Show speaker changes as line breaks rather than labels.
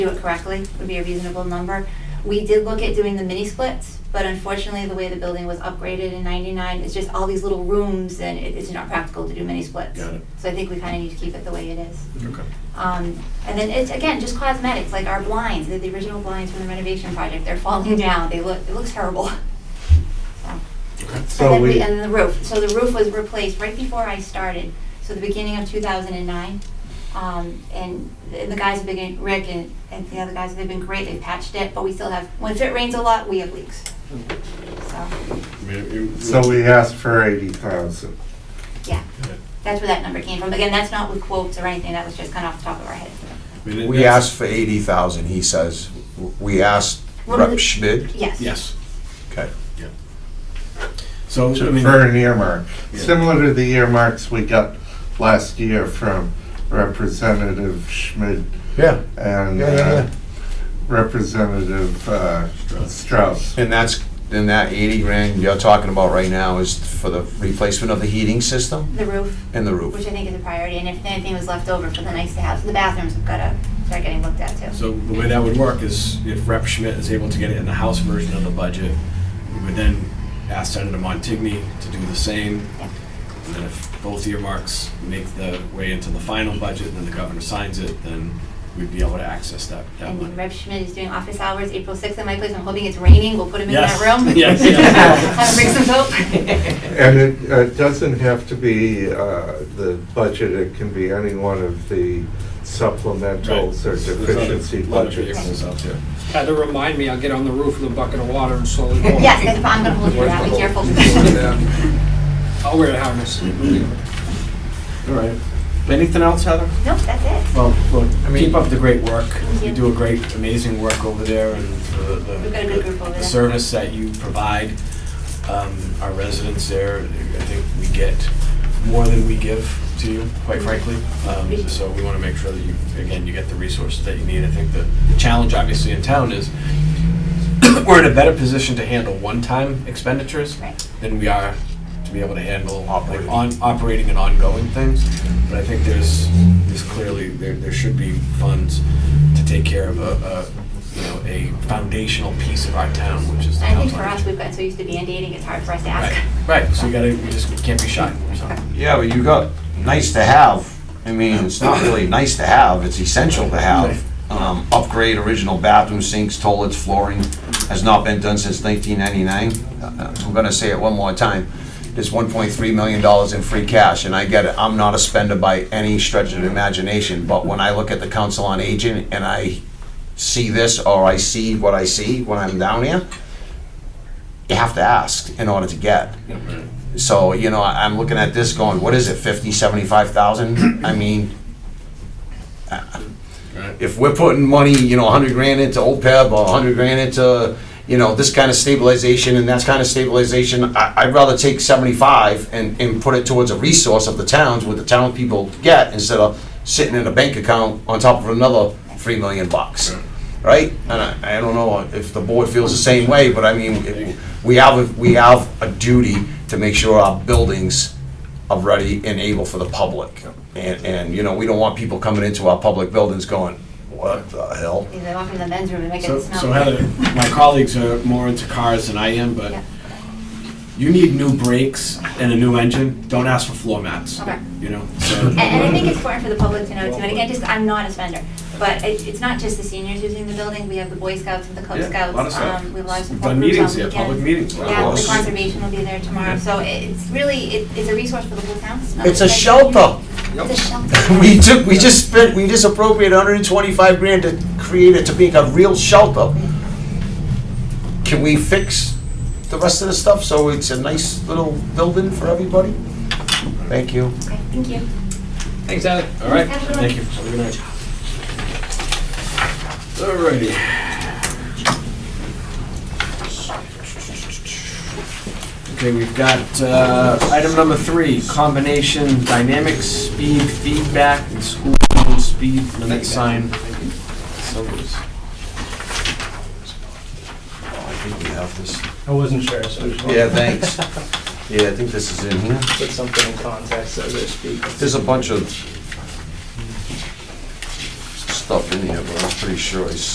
do it correctly would be a reasonable number. We did look at doing the mini splits, but unfortunately, the way the building was upgraded in ninety-nine, it's just all these little rooms and it, it's not practical to do mini splits.
Got it.
So I think we kinda need to keep it the way it is.
Okay.
Um, and then it's, again, just cosmetics, like our blinds, the, the original blinds from the renovation project, they're falling down, they look, it looks terrible. So. And
So
then we,
we,
and then the roof, so the roof was replaced right before I started, so the beginning of two thousand and nine. Um, and the the guys have been, Rick and, and the other guys, they've been great, they patched it, but we still have, once it rains a lot, we have leaks. So,
I mean, it-
so we asked for eighty thousand.
yeah,
Yeah.
that's where that number came from, again, that's not with quotes or anything, that was just kind of off the top of our head.
I mean, it-
We
that's-
asked for eighty thousand, he says. We asked
What are the-
Rep Schmidt,
Yes.
Yes.
okay.
So, I mean,
For an earmark,
Yeah.
similar to the earmarks we got last year from Representative Schmidt
Yeah.
and
Yeah, yeah,
uh,
yeah.
Representative uh, Strauss.
And that's, and that eighty grand you're talking about right now is for the replacement of the heating system
The roof,
and the
which
roof.
I think is a priority, and if anything was left over for the nice to have, the bathrooms have gotta start getting looked at too.
so the way that would work is if Rep Schmidt is able to get it in the House version of the budget, we would then ask Senator Montigny to do the same.
Yeah.
And then if both earmarks make the way into the final budget, and then the governor signs it, then we'd be able to access that, that
And
money.
Rep Schmidt is doing office hours April 6th at my place. I'm hoping it's raining. We'll put him in
Yes.
that room.
Yes, yes.
Have him bring some soap.
And it uh, doesn't have to be uh, the budget, it can be any one of the supplementals or
Right. There's
deficiency
a lot of
budgets.
vehicles out there.
Had to remind me, I'll get on the roof with a bucket of water and slowly go.
Yes, that's- I'm gonna hold you to that. Be careful.
I'll wear a harness.
All right. Anything else, Heather?
Nope, that's it.
Well, well,
mean-
keep up the great work.
Thank
You
you.
do a great, amazing work over there and the,
We've got a good
the,
group over
the
there.
service that you provide um, our residents there. I think we get more than we give to you,
Mm-hmm.
quite frankly. Um, So we want to make sure that you, again, you get the resources that you need. I think the the challenge obviously in town is we're in a better position to handle one-time expenditures
Right.
than we are to be able to handle like
Operating.
on, operating and ongoing things. But I think there's, there's clearly, there, there should be funds to take care of a, a, you know, a foundational piece of our town, which is the
I think
housing.
for us, we've gotten so used to band-aiding, it's hard for us to ask.
Right, right, so you gotta, you just, you can't be shy, so.
Yeah, but you got nice to have, I mean, it's not really nice to have, it's essential to have. Um, upgrade original bathroom sinks, toilets, flooring, has not been done since nineteen ninety-nine. Uh, I'm gonna say it one more time, there's one point three million dollars in free cash, and I get it, I'm not a spender by any stretch of the imagination, but when I look at the council on aging and I see this, or I see what I see when I'm down here, you have to ask in order to get. So, you know, I- I'm looking at this going, what is it, fifty, seventy-five thousand? I mean,
Right.
if we're putting money, you know, a hundred grand into OPEB or a hundred grand into, you know, this kind of stabilization and that kind of stabilization, I, I'd rather take seventy-five and, and put it towards a resource of the towns, what the town people get, instead of sitting in a bank account on top of another three million bucks, right? And I, I don't know if the board feels the same way, but I mean, it- we have, a- we have a duty to make sure our buildings are ready and able for the public. And, and, you know, we don't want people coming into our public buildings going, what the hell?
They walk into the men's room and make
So,
it
so
smell.
Heather, my colleagues are more into cars than I am, but
Yeah.
you need new brakes and a new engine, don't ask for floor mats.
Okay.
You know, so.
And, and I think it's important for the public to know too, and again, just, I'm not a spender, but it, it's not just the seniors using the building, we have the Boy Scouts and the Cub
Yeah,
Scouts.
lot of stuff.
um, We have a lot of
We've
support
done
groups on
meetings
weekends.
here, public meetings.
Yeah, the
Awesome.
conservation will be there tomorrow, so it's really, it, it's a resource for the whole town. not
It's a
just-
shelter.
It's a shelter.
We took, we just spent, we just appropriated hundred and twenty-five grand to create it to be a real shelter. Can we fix the rest of the stuff so it's a nice little building for everybody? Thank you.
Okay, Thank you.
Thanks, Alex.
All right,
Have a good
thank
one.
you. Have a good night. All righty. Okay, we've got uh, item number three, combination dynamics, speed feedback, and school zone speed limit sign. Summers.
I think we have this.
I wasn't sure, so I just
Yeah,
wanted
thanks. Yeah, I think this is in here.
to put something in context as I speak.
There's a bunch of stuff in here, but I'm pretty sure I